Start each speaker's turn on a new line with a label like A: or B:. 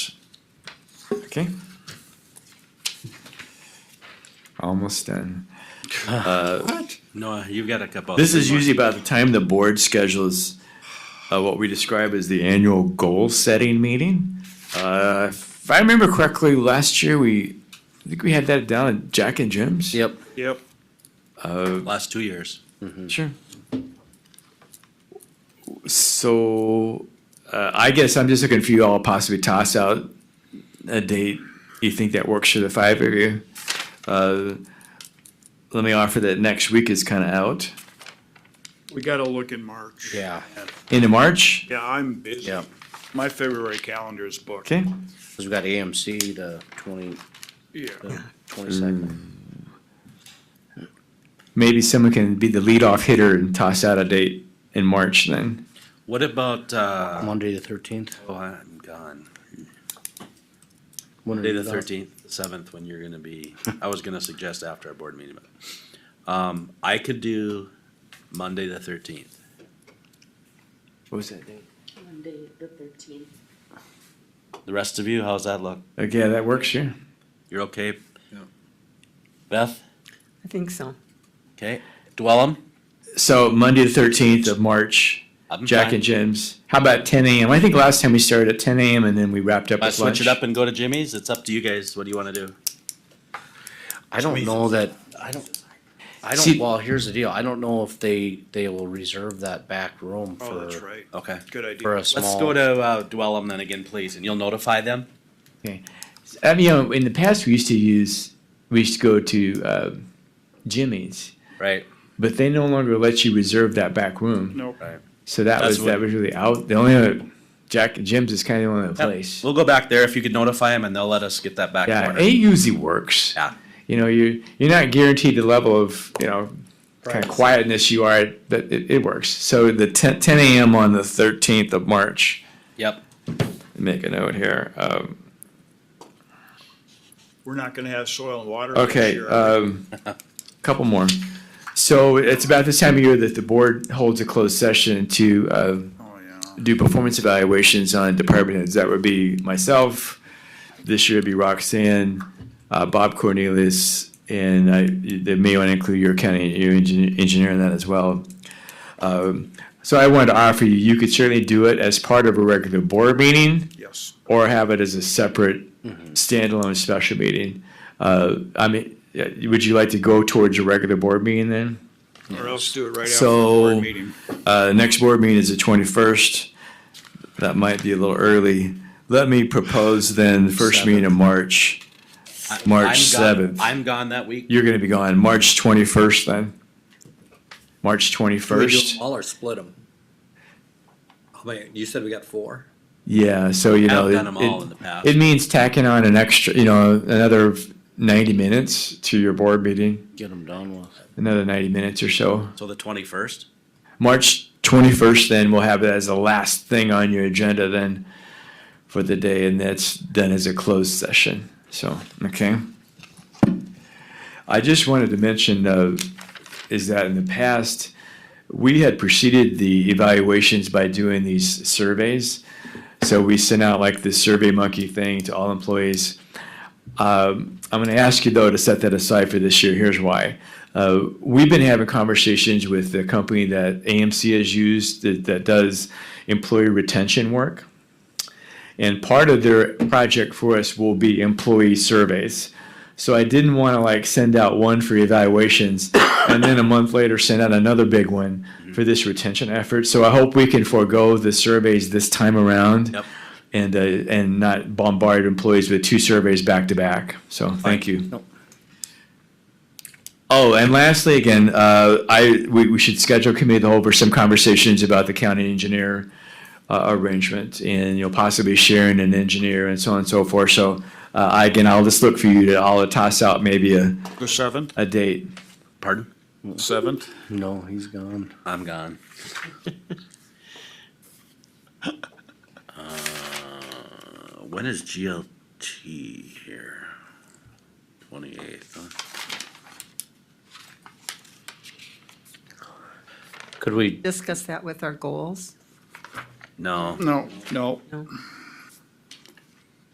A: Okay. Almost done.
B: What?
C: Noah, you've got a couple.
A: This is usually about the time the board schedules uh, what we describe as the annual goal setting meeting. Uh, if I remember correctly, last year we, I think we had that down at Jack and Jim's.
D: Yep.
B: Yep.
C: Last two years.
A: Sure. So, uh, I guess I'm just looking for you all to possibly toss out a date you think that works for the five of you. Uh, let me offer that next week is kind of out.
B: We gotta look in March.
D: Yeah.
A: Into March,
B: Yeah, I'm busy.
D: Yeah.
B: My February calendar is booked.
A: okay?
D: Cause we got AMC the twenty,
B: Yeah.
D: the twenty-second.
A: Maybe someone can be the leadoff hitter and toss out a date in March then.
C: What about, uh,
D: Monday the thirteenth.
C: oh, I'm gone. Monday the thirteenth, seventh, when you're gonna be, I was gonna suggest after our board meeting, but, um, I could do Monday the thirteenth.
A: What was that date?
E: Monday, the thirteenth.
C: The rest of you, how's that look?
A: Okay, that works, sure.
C: You're okay? Beth,
E: I think so.
C: okay? Dwellem?
A: So Monday the thirteenth of March,
C: I'm
A: Jack
C: fine.
A: and Jim's. How about ten AM? I think last time we started at ten AM and then we wrapped up
C: I
A: with
C: switch
A: lunch.
C: it up and go to Jimmy's? It's up to you guys. What do you wanna do?
D: I don't know that, I don't, I don't,
A: See-
D: well, here's the deal. I don't know if they, they will reserve that back room
B: Oh, that's
D: for,
B: right.
C: Okay.
B: Good
D: for a
B: idea.
C: Let's go
D: small.
C: to, uh, Dwellem then again, please, and you'll notify them?
A: I mean, you know, in the past, we used to use, we used to go to uh, Jimmy's,
C: Right,
A: but they no longer let you reserve that back room.
B: Nope.
A: So that
C: That's
A: was, that
C: what-
A: was really out. The only other, Jack and Jim's is kind of the only other
C: Yep.
A: place.
C: We'll go back there if you could notify them and they'll let us get that back.
A: Yeah,
C: corner.
A: it usually works.
C: Yeah.
A: You know, you, you're not guaranteed the level of, you know, kind
D: Right.
A: of quietness you are, but it, it works. So the 10, 10 a.m. on the 13th of March.
C: Yep.
A: make a note here. Um,
B: We're not gonna have soil and water. this
A: okay,
B: year.
A: um, couple more. So it's about this time of year that the board holds a closed session to uh,
B: Oh, yeah.
A: do performance evaluations on department heads. That would be myself. This year it'd be Roxanne, uh, Bob Cornelius, and I, they may want to include your county your engineer, engineer in that as well. Um, so I wanted to offer you, you could certainly do it as part of a regular board meeting.
B: Yes.
A: or have it as a separate standalone special meeting. Uh, I mean, yeah, would you like to go towards your regular board meeting then?
B: Or else do it right after the
A: So-
B: board meeting.
A: Uh, the next board meeting is the twenty-first. That might be a little early. Let me propose then, the first meeting in March.
C: I-
A: March
C: I'm gone-
A: 7th.
C: I'm gone that week.
A: You're gonna be gone, March twenty-first then? March
F: Do we do
A: twenty-first?
F: them All or split them? How many, you said we got four?
A: Yeah, so you know.
C: I've
A: it-
C: done them all
A: it-
C: in the past.
A: It means tacking on an extra, you know, another ninety minutes to your board meeting,
D: Get them done with.
A: another ninety minutes or so.
C: So the twenty-first?
A: March 21st, then we'll have it as the last thing on your agenda then for the day, and that's done as a closed session. So, okay. I just wanted to mention uh, is that in the past, we had preceded the evaluations by doing these surveys. So we sent out like this Survey Monkey thing to all employees. Um, I'm going to ask you though to set that aside for this year. Here's why. Uh, we've been having conversations with the company that AMC has used that, that does employee retention work. And part of their project for us will be employee surveys. So I didn't want to like send out one for evaluations and then a month later send out another big one for this retention effort. So I hope we can forego the surveys this time around
C: Yep.
A: and uh, and not bombard employees with two surveys back to back. So thank you.
D: Nope.
A: Oh, and lastly, again, uh, I we, we should schedule a committee of the whole for some conversations about the county engineer uh, arrangement and you know possibly sharing an engineer and so on and so forth. So uh, I, again, I'll just look for you to I'll toss out maybe a,
B: The seventh?
A: a date.
C: Pardon?
B: Seventh?
D: No, he's gone.
C: I'm gone. Uh, When is GLT here? Twenty-eighth, huh?
D: Could we,
E: Discuss that with our goals?
C: No,
B: No, no.
E: No.